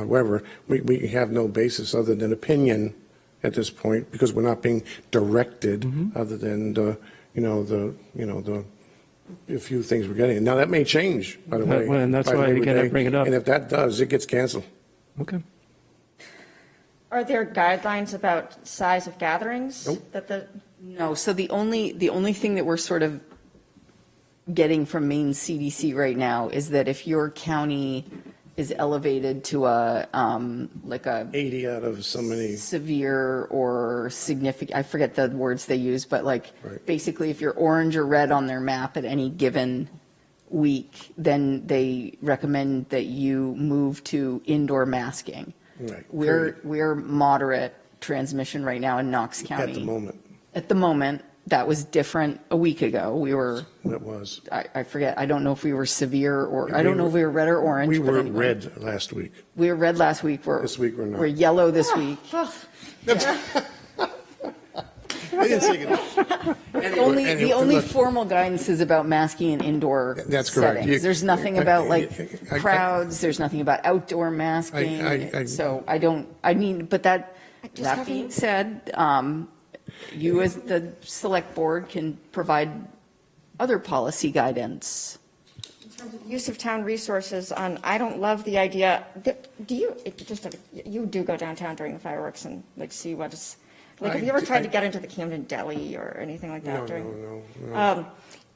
However, we, we have no basis other than opinion at this point, because we're not being directed, Mm-hmm. other than the, you know, the, you know, the, a few things we're getting. Now, that may change, by the That- way. well, and that's by why, Labor again, I Day. bring it up. And if that does, it gets canceled. Okay. Are there guidelines about size of gatherings? That the, No, so the only, the only thing that we're sort of getting from Maine CDC right now is that if your county is elevated to a, um, like a 80 out of so many, severe or significant, I forget the words they use, but like, Right. basically, if you're orange or red on their map at any given week, then they recommend that you move to indoor masking. Right, We're, period. we're moderate transmission right now in Knox County. at the moment, At the moment, that was different a week ago. We were, that was. I, I forget, I don't know if we were severe or, I We don't know if we were red or orange. We but were anyway. red last week. We were red last week. We're. This week we're not. We're yellow this Ah. week. I didn't think it. The only, Anyway, the only look. formal guidance is about masking in indoor That's correct. You- settings. There's nothing I- about I- like I- crowds, there's nothing about I- outdoor I- I- masking. So I don't, I mean, but that, I just that being haven't- said, um, you as the select board can provide other policy guidance. in terms of use of town resources on, I don't love the idea, that- do you, it just, you do go downtown during the fireworks and like see what is, like, have you I ever d- tried to I- get into the Camden Deli or anything like No, that during? no, no, no. Um,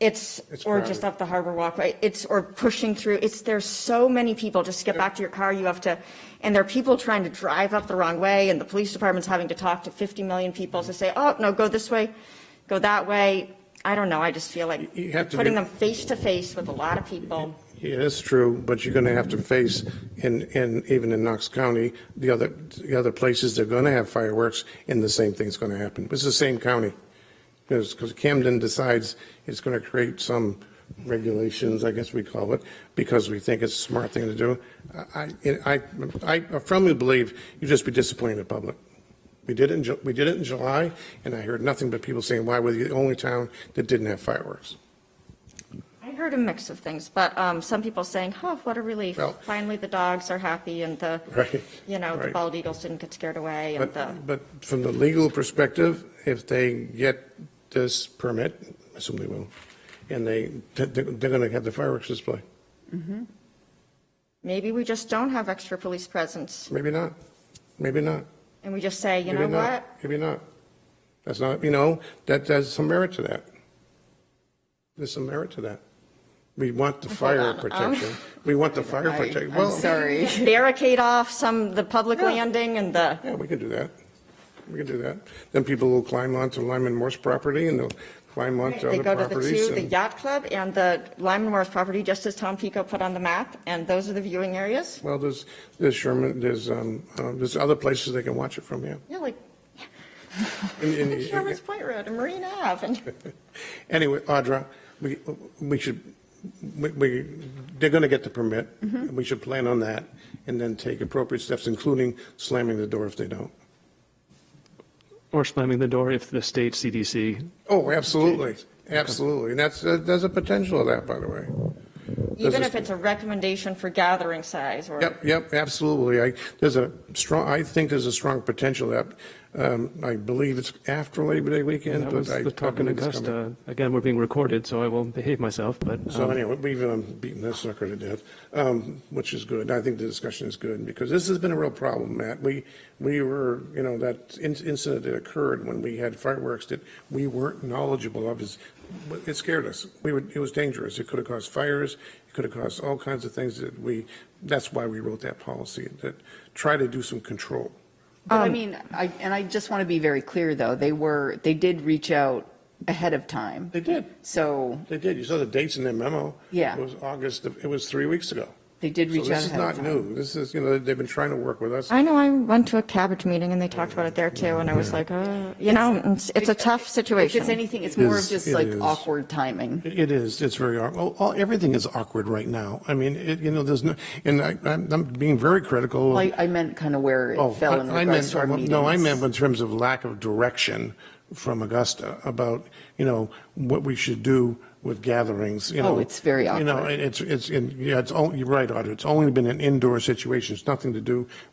It's, It's or just crowded. up the Harbor Walkway, it's, or pushing through, it's, there's so many people, just get back to your car, you have to, and there are people trying to drive up the wrong way, and the police department's having to talk to 50 million people to say, oh, no, go this way, go that way. I don't know, I just feel like You have to putting be- them face to face with a lot of people. Yeah, that's true, but you're going to have to face, in, in, even in Knox County, the other, the other places, they're going to have fireworks, and the same thing's going to happen. It's the same county. Because, Camden decides it's going to create some regulations, I guess we call it, because we think it's a smart thing to do. I, I, I firmly believe you just be disappointing the public. We did it in, Ju- we did it in July, and I heard nothing but people saying, why were you the only town that didn't have fireworks? I heard a mix of things, but um, some people saying, oh, what a relief, Well- finally the dogs are happy, and the, Right, you know, the right. bald eagles didn't get scared away, and the. But, but from the legal perspective, if they get this permit, I assume they will, and they, they're going to have the fireworks display. Maybe we just don't have extra police presence, Maybe not, maybe not. and we just say, you maybe know not, what? Maybe not. That's not, you know, that, there's some merit to that. There's some merit to that. We want the fire on, um, protection. We want the fire I- protection. I'm Well, sorry. Barricade off some, the public landing and the, Yeah, we can do that. We can do that. Then people will climb onto Lyman Morse property and they'll climb onto they other go to the properties. two, the and- yacht club and the Lyman Morris property, just as Tom Pico put on the map, and those are the viewing areas. Well, there's, there's Sherman, there's, um, um, there's other places they can watch it from, yeah. Yeah, like And- and- Sherman's Point Road and Marine Ave, and Anyway, Audra, we, we should, we- we, they're going to get the permit. and We should plan on that and then take appropriate steps, including slamming the door if they don't. Or slamming the door if the state CDC, Oh, absolutely, absolutely. And that's, uh, there's a potential of that, by the way. even is- if it's a recommendation for gathering size or. Yep, yep, absolutely. I, there's a strong, I think there's a strong potential that, um, I believe it's after Labor Day weekend, that but was I. the I talk in believe it's coming. Augusta. Again, we're being recorded, so I will behave myself, but. um, So anyway, we've um, beaten that sucker to death, um, which is good. I think the discussion is good because this has been a real problem, Matt. We, we were, you know, that in- incident that occurred when we had fireworks that we weren't knowledgeable of is, it scared us. We would, it was dangerous. It could have caused fires. It could have caused all kinds of things that we, that's why we wrote that policy, that try to do some control. But I mean, I, and I just want to be very clear, though, they were, they did reach out ahead of time. They did. So They did. You saw the dates in their memo. Yeah. It was August, of- it was three weeks ago. they did So reach out this is ahead of not time. new. This is, you know, they've been trying to work with us. I know, I went to a cabbage meeting and they talked about it there too, and I was like, oh, you know, it's- it's a tough If situation. it's anything, it's more is- of just it like is. awkward timing. It is, it's very, awk- oh, all, everything is awkward right now. I mean, it, you know, there's no, and I, I'm I'm being very critical. of- I, I meant kind of where Oh, it fell in I- I regards to our meant- meetings. No, I meant in terms of lack of direction from Augusta about, you know, what we should do with gatherings, you Oh, know. it's very You know, awkward. it's, it's, in- yeah, it's, on- you're right, Audra, it's only been an indoor situation, it's nothing to do